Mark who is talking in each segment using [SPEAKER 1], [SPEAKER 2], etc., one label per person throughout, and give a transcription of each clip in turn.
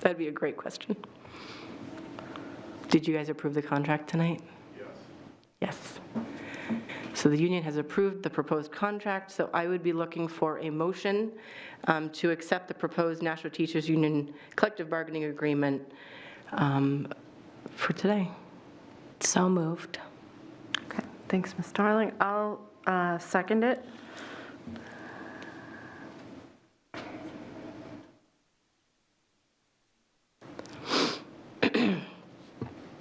[SPEAKER 1] That'd be a great question. Did you guys approve the contract tonight? Yes. Yes. So the union has approved the proposed contract, so I would be looking for a motion um, to accept the proposed National Teachers Union collective bargaining agreement um, for today.
[SPEAKER 2] So moved.
[SPEAKER 3] Okay, thanks, Ms. Darling. I'll uh, second it.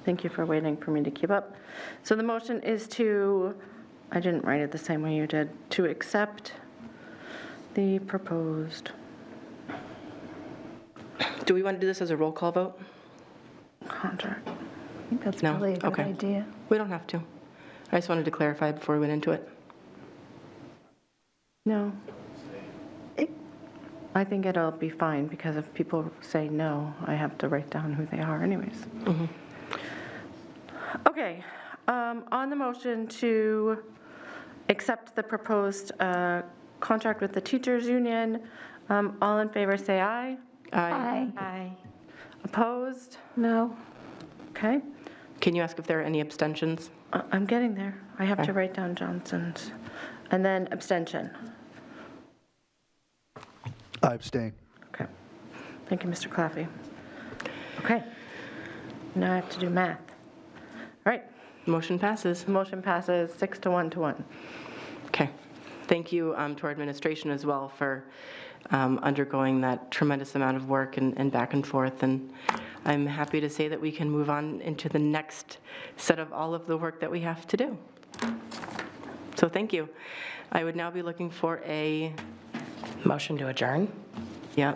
[SPEAKER 3] Thank you for waiting for me to keep up. So the motion is to, I didn't write it the same way you did, to accept the proposed.
[SPEAKER 1] Do we want to do this as a roll call vote?
[SPEAKER 3] Contract.
[SPEAKER 4] I think that's
[SPEAKER 1] No?
[SPEAKER 4] probably a good
[SPEAKER 1] Okay.
[SPEAKER 4] idea.
[SPEAKER 1] We don't have to. I just wanted to clarify before we went into it.
[SPEAKER 3] No,
[SPEAKER 4] It-
[SPEAKER 3] I think it'll be fine, because if people say no, I have to write down who they are anyways.
[SPEAKER 4] Mm-hmm.
[SPEAKER 3] Okay, um, on the motion to accept the proposed uh, contract with the teachers' union, um, all in favor, say aye.
[SPEAKER 1] Aye.
[SPEAKER 4] Aye.
[SPEAKER 3] Aye. Opposed?
[SPEAKER 4] No.
[SPEAKER 3] Okay,
[SPEAKER 1] Can you ask if there are any abstentions?
[SPEAKER 3] I- I'm getting there. I have to
[SPEAKER 1] Okay.
[SPEAKER 3] write down Johnson's. And then abstention.
[SPEAKER 5] I abstain.
[SPEAKER 3] Okay. Thank you, Mr. Claffey. Okay. Now I have to do math. All right,
[SPEAKER 1] Motion passes.
[SPEAKER 3] motion passes six to one to one.
[SPEAKER 1] Okay. Thank you um, to our administration as well for um, undergoing that tremendous amount of work and and back and forth. And I'm happy to say that we can move on into the next set of all of the work that we have to do. So thank you. I would now be looking for a,
[SPEAKER 2] Motion to adjourn?
[SPEAKER 1] yeah,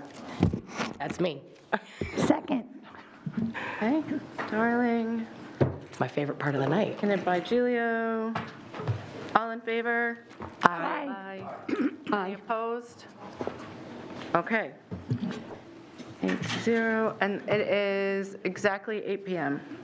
[SPEAKER 2] That's me.
[SPEAKER 4] Second.
[SPEAKER 3] Okay, Darling,
[SPEAKER 2] It's my favorite part of the night.
[SPEAKER 3] seconded by Gilio. All in favor?
[SPEAKER 4] Aye.
[SPEAKER 3] Aye. Any opposed? Okay. Eight zero, and it is exactly 8 PM.